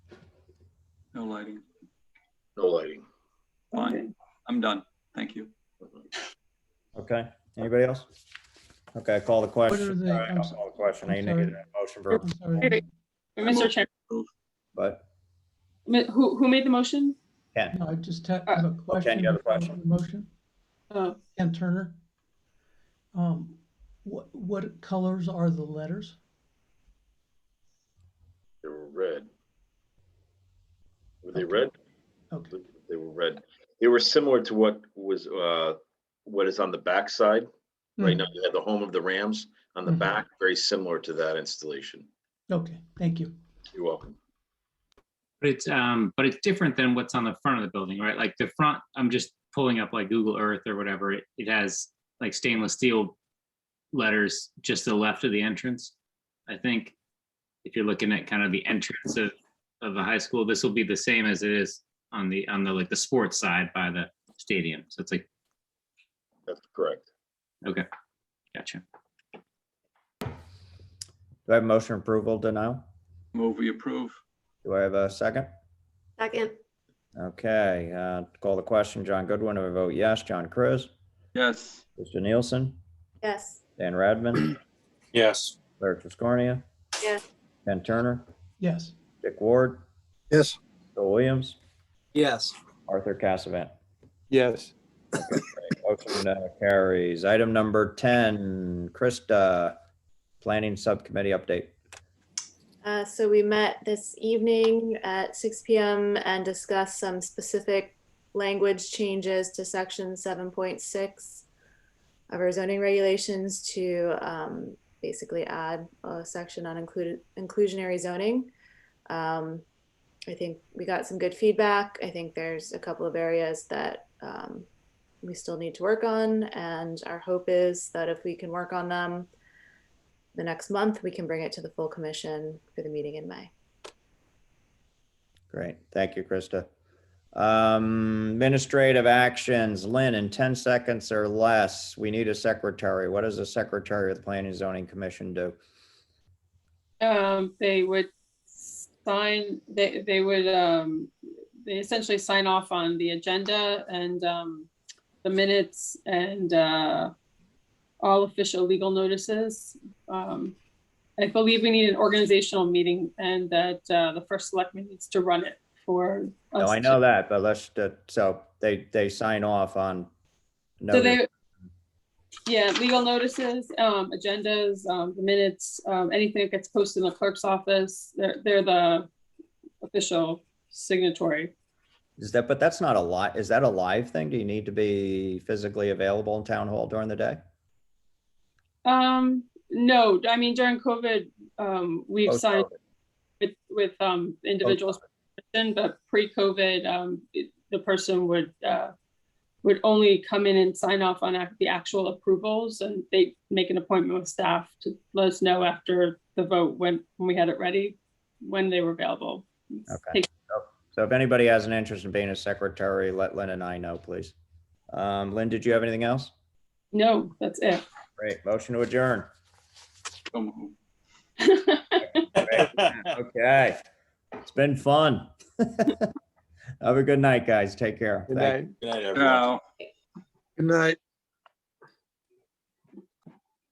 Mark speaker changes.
Speaker 1: No lighting.
Speaker 2: No lighting.
Speaker 1: Fine.
Speaker 3: Okay.
Speaker 1: I'm done. Thank you.
Speaker 4: Okay, anybody else? Okay, I call the
Speaker 5: are
Speaker 4: question.
Speaker 5: they?
Speaker 4: All right,
Speaker 5: I'm
Speaker 4: I'll
Speaker 5: so-
Speaker 4: call the question. I
Speaker 5: I'm
Speaker 4: need to get
Speaker 5: sorry.
Speaker 4: a motion for,
Speaker 5: I'm Oh, sorry.
Speaker 3: Wait, Mr. Chair,
Speaker 4: but,
Speaker 3: mi- who, who made the motion?
Speaker 5: No, I just have
Speaker 3: Uh,
Speaker 5: a question.
Speaker 4: you have a
Speaker 5: before
Speaker 4: question?
Speaker 5: the Motion,
Speaker 3: Oh,
Speaker 5: Ken Turner. Um, what, what colors are the letters?
Speaker 2: They were red. Were they red?
Speaker 5: Okay,
Speaker 2: They were red. They were similar to what was, uh, what is on the backside. Right
Speaker 5: Mhm.
Speaker 2: now, you have the home of the Rams on the
Speaker 5: Mhm.
Speaker 2: back, very similar to that installation.
Speaker 5: okay, thank you.
Speaker 2: You're welcome.
Speaker 6: But it's um, but it's different than what's on the front of the building, right? Like the front, I'm just pulling up like Google Earth or whatever. It, it has like stainless steel letters just to the left of the entrance. I think if you're looking at kind of the entrance of of a high school, this will be the same as it is on the on the like the sports side by the stadium. So it's like
Speaker 2: That's correct.
Speaker 6: gotcha.
Speaker 4: do I have motion approval denial?
Speaker 1: Move we approve.
Speaker 4: Do I have a second?
Speaker 7: Second,
Speaker 4: Okay, uh, call the question. John Goodwin, I vote yes. John Chris,
Speaker 1: Yes.
Speaker 4: Krista Nielsen,
Speaker 7: yes,
Speaker 4: Dan Radman,
Speaker 8: Yes.
Speaker 4: Larry Tiscornia,
Speaker 7: yes,
Speaker 4: Ken Turner,
Speaker 5: Yes,
Speaker 4: Dick Ward,
Speaker 8: Yes.
Speaker 4: Bill Williams,
Speaker 8: Yes.
Speaker 4: Arthur Cassavant.
Speaker 8: Yes.
Speaker 4: Motion uh, carries. Item number 10, Krista, Planning Subcommittee update.
Speaker 7: Uh, so we met this evening at six PM and discussed some specific language changes to section seven point six of our zoning regulations to um, basically add a section on included inclusionary zoning. Um, I think we got some good feedback. I think there's a couple of areas that um, we still need to work on, and our hope is that if we can work on them, the next month, we can bring it to the full commission for the meeting in May.
Speaker 4: Great. Thank you, Krista. Um, Administrative actions, Lynn, in 10 seconds or less, we need a secretary. What does the secretary of the Planning and Zoning Commission do?
Speaker 3: um, they would sign, they, they would, um, they essentially sign off on the agenda and, um, the minutes and, uh, all official legal notices. Um, I believe we need an organizational meeting and that, uh, the first selectman needs to run it for.
Speaker 4: No,
Speaker 3: us
Speaker 4: Oh, I
Speaker 3: to-
Speaker 4: know that, but let's, uh, so they, they sign off on.
Speaker 3: So
Speaker 4: notice.
Speaker 3: they, yeah, legal notices, um, agendas, um, the minutes, um, anything that gets posted in the clerk's office, they're, they're the official signatory.
Speaker 4: Is that, but that's not a li, is that a live thing? Do you need to be physically available in town hall during the day?
Speaker 3: Um, no, I mean, during COVID, um, we've signed with, with, um, individuals, but pre-COVID, um, it- the person would, uh, would only come in and sign off on ac- the actual approvals and they make an appointment with staff to let us know after the vote when, when we had it ready, when they were available.
Speaker 4: Okay. So if anybody has an interest in being a secretary, let Lynn and I know, please. Um, Lynn, did you have anything else?
Speaker 3: No, that's it.
Speaker 4: Great. Motion to adjourn.
Speaker 1: So moved.
Speaker 4: Okay. It's been fun. Have a good night, guys. Take care.
Speaker 8: Good
Speaker 4: Thank
Speaker 1: Uh,
Speaker 4: you.
Speaker 8: night. Good night,
Speaker 1: Now,
Speaker 8: Good night.